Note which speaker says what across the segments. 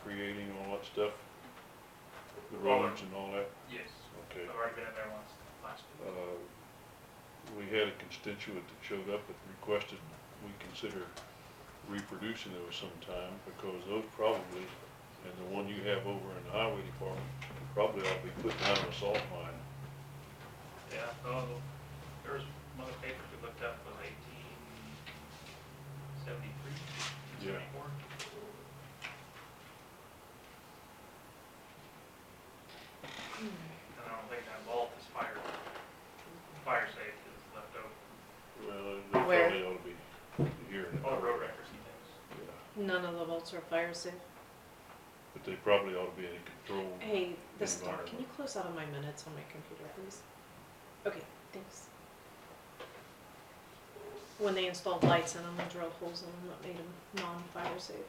Speaker 1: creating all that stuff? The
Speaker 2: Well,
Speaker 1: roads and all that,
Speaker 2: Yes,
Speaker 1: okay.
Speaker 2: I've already been in there once, last
Speaker 1: Uh,
Speaker 2: week.
Speaker 1: We had a constituent that showed up and requested we consider reproducing those sometime, because those probably, and the one you have over in the highway department, probably ought to be put down in a salt mine.
Speaker 2: Yeah, oh, there was one of the papers we looked up was eighteen seventy-three,
Speaker 1: Yeah.
Speaker 2: seventy-four. And I don't think that vault is fire, fire safe is left over,
Speaker 1: Well, they
Speaker 3: Where?
Speaker 1: probably ought to be here. in the
Speaker 2: all the road
Speaker 1: highway.
Speaker 2: records he knows.
Speaker 1: Yeah.
Speaker 3: Mm. None of the vaults are fire safe.
Speaker 1: But they probably ought to be in control.
Speaker 3: Hey, this dog, can you
Speaker 1: Environment.
Speaker 3: close out of my minutes on my computer, please? Okay, thanks. When they installed lights in them, they drilled holes in them that made them non-fire safe.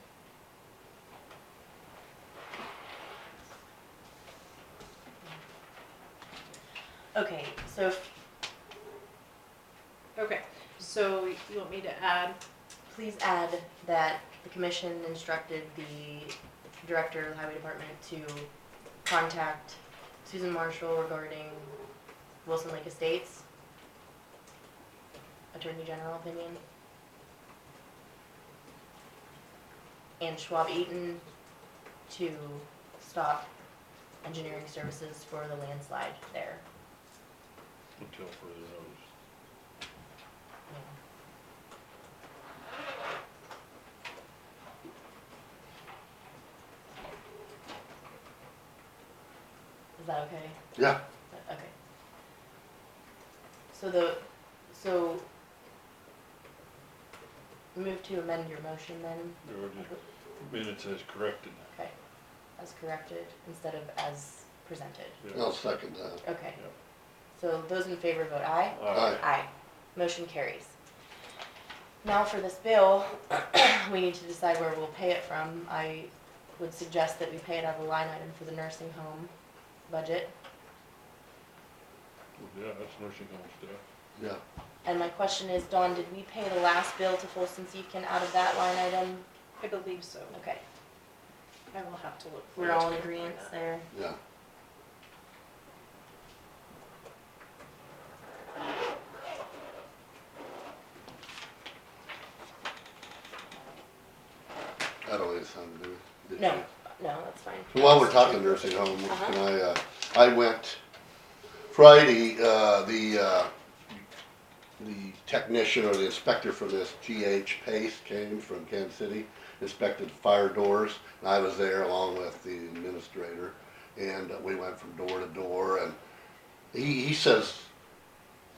Speaker 4: Okay, so
Speaker 3: Okay, so you want me to add,
Speaker 4: please add that the commission instructed the director of the highway department to contact Susan Marshall regarding Wilson Lake Estates. Attorney General opinion. And Schwab Eaton to stop engineering services for the landslide there.
Speaker 1: Until further notice.
Speaker 4: Is that okay?
Speaker 5: Yeah,
Speaker 4: Okay. So the, so move to amend your motion then,
Speaker 1: There were just minutes as corrected.
Speaker 4: okay, as corrected instead of as presented.
Speaker 1: Yeah.
Speaker 5: I'll second uh, that.
Speaker 4: Okay.
Speaker 1: Yep.
Speaker 4: So those in favor vote aye.
Speaker 1: Aye.
Speaker 4: Aye. Motion carries. Now for this bill, we need to decide where we'll pay it from. I would suggest that we pay it out of the line item for the nursing home budget.
Speaker 1: Well, Yeah, that's nursing home stuff.
Speaker 5: Yeah,
Speaker 4: And my question is, Dawn, did we pay the last bill to Folsom Seaton out of that line item?
Speaker 3: I believe so,
Speaker 4: Okay,
Speaker 3: I will have to look. for
Speaker 4: we're
Speaker 3: it.
Speaker 4: all in agreement there.
Speaker 5: yeah. That don't even sound good. did
Speaker 4: No,
Speaker 5: you?
Speaker 4: no, that's fine.
Speaker 5: So while we're talking nursing home,
Speaker 4: Uh-huh.
Speaker 5: can I, uh, I went Friday, uh, the, uh, the technician or the inspector for this, G.H. Pace, came from Kansas City, inspected fire doors, and I was there along with the administrator, and uh, we went from door to door, and he, he says,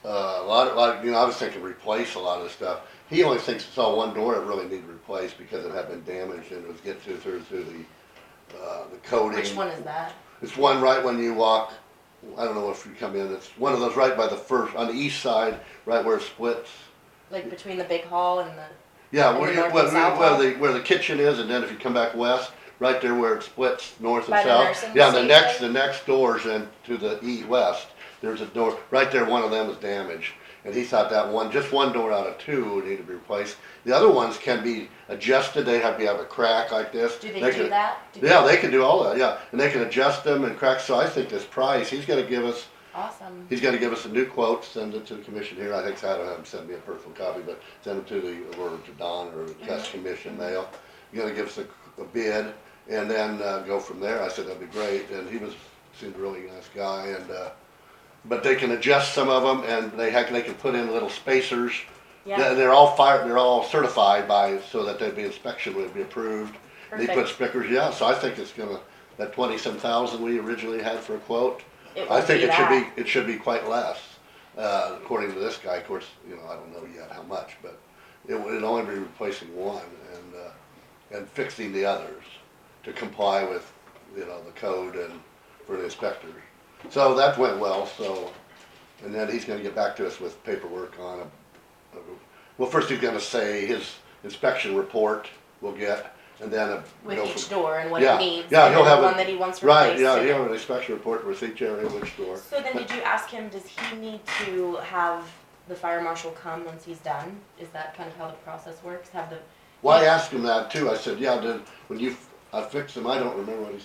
Speaker 5: uh, a lot, a lot, you know, I was thinking replace a lot of stuff. He only thinks it's all one door that really needed replaced because it had been damaged and it was get through, through, through the, uh, the coating.
Speaker 4: Which one is that?
Speaker 5: It's one right when you walk, I don't know if you come in, it's one of those right by the first, on the east side, right where it splits.
Speaker 4: Like between the big hall and the,
Speaker 5: Yeah,
Speaker 4: And
Speaker 5: where
Speaker 4: the
Speaker 5: you,
Speaker 4: north
Speaker 5: where,
Speaker 4: and south
Speaker 5: where
Speaker 4: wall?
Speaker 5: the, where the kitchen is, and then if you come back west, right there where it splits north and
Speaker 4: By
Speaker 5: south.
Speaker 4: the nursing
Speaker 5: Yeah, the next, the
Speaker 4: station?
Speaker 5: next doors in to the e west, there's a door, right there, one of them is damaged. And he thought that one, just one door out of two would need to be replaced. The other ones can be adjusted, they have, you have a crack like this.
Speaker 4: do they do
Speaker 5: could-
Speaker 4: that? Do
Speaker 5: yeah, they can do all that, yeah, and they can adjust them and crack, so I think this price, he's gonna give us,
Speaker 4: Awesome.
Speaker 5: he's gonna give us a new quote, send it to the commission here, I think, I don't have him send me a personal copy, but send it to the, or to Don or the test
Speaker 4: Mm-hmm.
Speaker 5: commission mail. He's gonna give us a, a bid, and then, uh, go from there, I said that'd be great, and he was, seemed a really nice guy, and, uh, but they can adjust some of them, and they have, they can put in little spacers,
Speaker 4: Yeah,
Speaker 5: they're, they're all fired, they're all certified by, so that they'd be inspection would be approved. And They put
Speaker 4: Perfect.
Speaker 5: spickers, yeah, so I think it's gonna, that twenty-some thousand we originally had for a quote,
Speaker 4: it
Speaker 5: I
Speaker 4: would
Speaker 5: think
Speaker 4: be
Speaker 5: it should
Speaker 4: that.
Speaker 5: be, it should be quite less. Uh, according to this guy, of course, you know, I don't know yet how much, but it would it'd only be replacing one and, uh, and fixing the others to comply with, you know, the code and for the inspector. So that went well, so, and then he's gonna get back to us with paperwork on a well, first he's gonna say his inspection report we'll get, and then a. go
Speaker 4: With each
Speaker 5: from-
Speaker 4: door and what
Speaker 5: Yeah,
Speaker 4: it needs,
Speaker 5: yeah,
Speaker 4: and
Speaker 5: he'll
Speaker 4: then the
Speaker 5: have a-
Speaker 4: one that he wants
Speaker 5: Right,
Speaker 4: replaced.
Speaker 5: yeah,
Speaker 4: and-
Speaker 5: he'll have an inspection report for each area, which door.
Speaker 4: So then did you ask him, does he need to have the fire marshal come once he's done? Is that kind of how the process works? Have the,
Speaker 5: Well, I asked him that too. I said, yeah, did, when you, I fixed him, I don't remember what he